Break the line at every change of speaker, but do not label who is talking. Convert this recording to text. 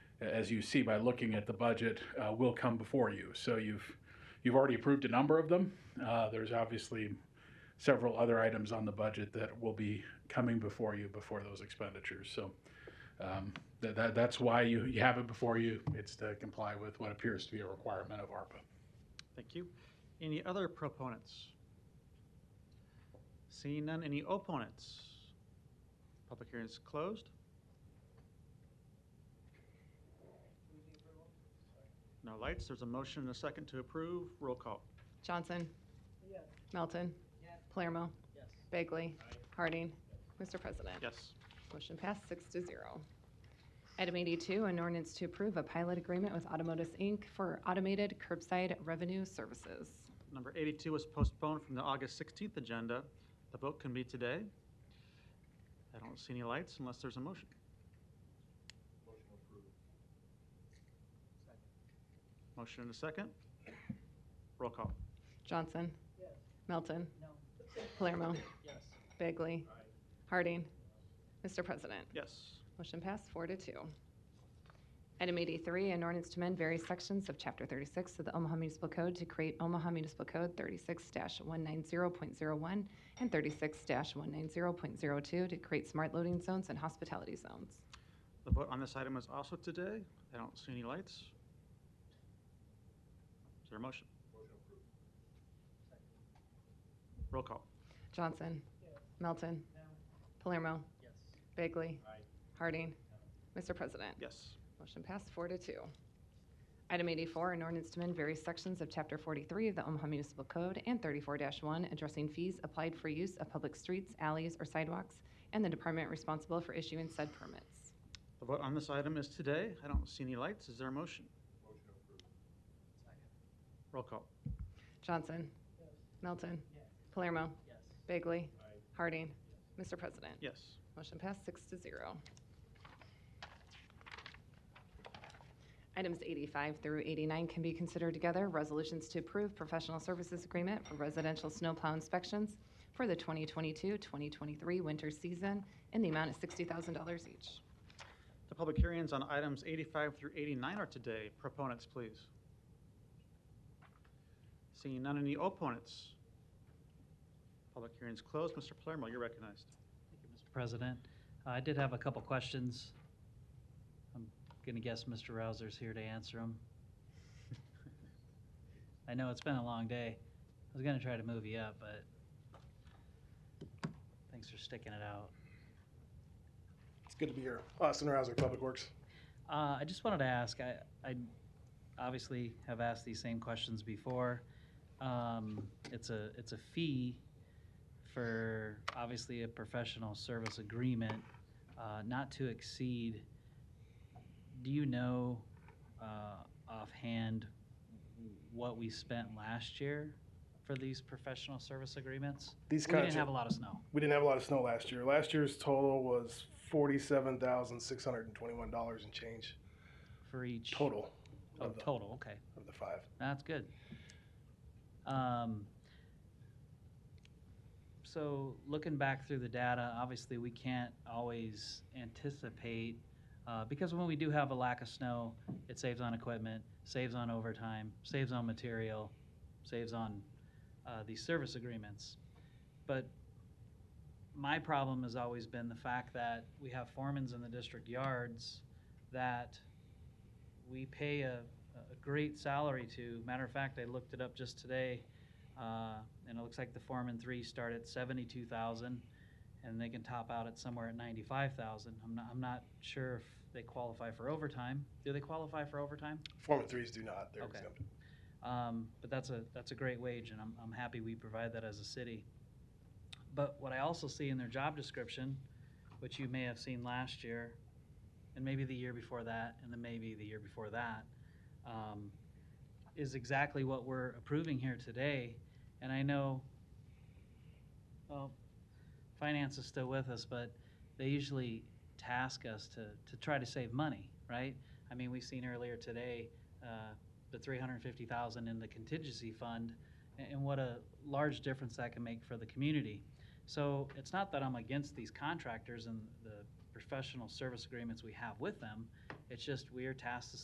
as you see by looking at the budget, uh, will come before you. So you've, you've already approved a number of them. Uh, There's obviously several other items on the budget that will be coming before you before those expenditures. So um, that, that, that's why you, you have it before you. It's to comply with what appears to be a requirement of ARPA.
Thank you. Any other proponents? Seeing none, any opponents? Public hearing is closed. No lights, there's a motion and a second to approve, roll call.
Johnson. Melton. Palermo. Bagley. Harding. Mr. President.
Yes.
Motion passed six to zero. Item 82, an ordinance to approve a pilot agreement with Automotus, Inc. for automated curbside revenue services.
Number 82 was postponed from the August 16th agenda. The vote can be today. I don't see any lights unless there's a motion. Motion and a second. Roll call.
Johnson. Melton. Palermo. Bagley. Harding. Mr. President.
Yes.
Motion passed four to two. Item 83, an ordinance to amend various sections of Chapter 36 of the Omaha Municipal Code to create Omaha Municipal Code 36-190.01 and 36-190.02 to create smart loading zones and hospitality zones.
The vote on this item is also today. I don't see any lights. Is there a motion? Roll call.
Johnson. Melton. Palermo. Bagley. Harding. Mr. President.
Yes.
Motion passed four to two. Item 84, an ordinance to amend various sections of Chapter 43 of the Omaha Municipal Code and 34-1 addressing fees applied for use of public streets, alleys, or sidewalks, and the department responsible for issuing said permits.
The vote on this item is today. I don't see any lights. Is there a motion? Roll call.
Johnson. Melton. Palermo. Bagley. Harding. Mr. President.
Yes.
Motion passed six to zero. Items 85 through 89 can be considered together. Resolutions to approve professional services agreement for residential snowplow inspections for the 2022-2023 winter season in the amount of $60,000 each.
The public hearings on items 85 through 89 are today. Proponents, please. Seeing none, any opponents? Public hearings closed. Mr. Palermo, you're recognized.
Thank you, Mr. President. I did have a couple questions. I'm going to guess Mr. Rousers here to answer them. I know it's been a long day. I was going to try to move you up, but thanks for sticking it out.
It's good to be here. Austin Rouser, Public Works.
Uh, I just wanted to ask, I, I obviously have asked these same questions before. Um, it's a, it's a fee for obviously a professional service agreement, uh, not to exceed. Do you know, uh, offhand what we spent last year for these professional service agreements?
These
We didn't
contracts,
have a lot of snow.
we didn't have a lot of snow last year. Last year's total was forty-seven thousand six hundred and twenty-one dollars and change
For each?
total
Oh,
of the,
total, okay.
of the five.
That's good. Um, so looking back through the data, obviously we can't always anticipate, uh, because when we do have a lack of snow, it saves on equipment, saves on overtime, saves on material, saves on, uh, these service agreements. But my problem has always been the fact that we have foremans in the district yards that we pay a, a great salary to. Matter of fact, I looked it up just today, uh, and it looks like the foreman three start at seventy-two thousand, and they can top out at somewhere at ninety-five thousand. I'm not, I'm not sure if they qualify for overtime. Do they qualify for overtime?
Foreman threes do not. They're
Okay.
exempted.
Um, but that's a, that's a great wage, and I'm, I'm happy we provide that as a city. But what I also see in their job description, which you may have seen last year, and maybe the year before that, and then maybe the year before that, um, is exactly what we're approving here today. And I know, well, finance is still with us, but they usually task us to, to try to save money, right? I mean, we've seen earlier today, uh, the three hundred and fifty thousand in the contingency fund, a- and what a large difference that can make for the community. So it's not that I'm against these contractors and the pers- professional service agreements we have with them. It's just we are tasked to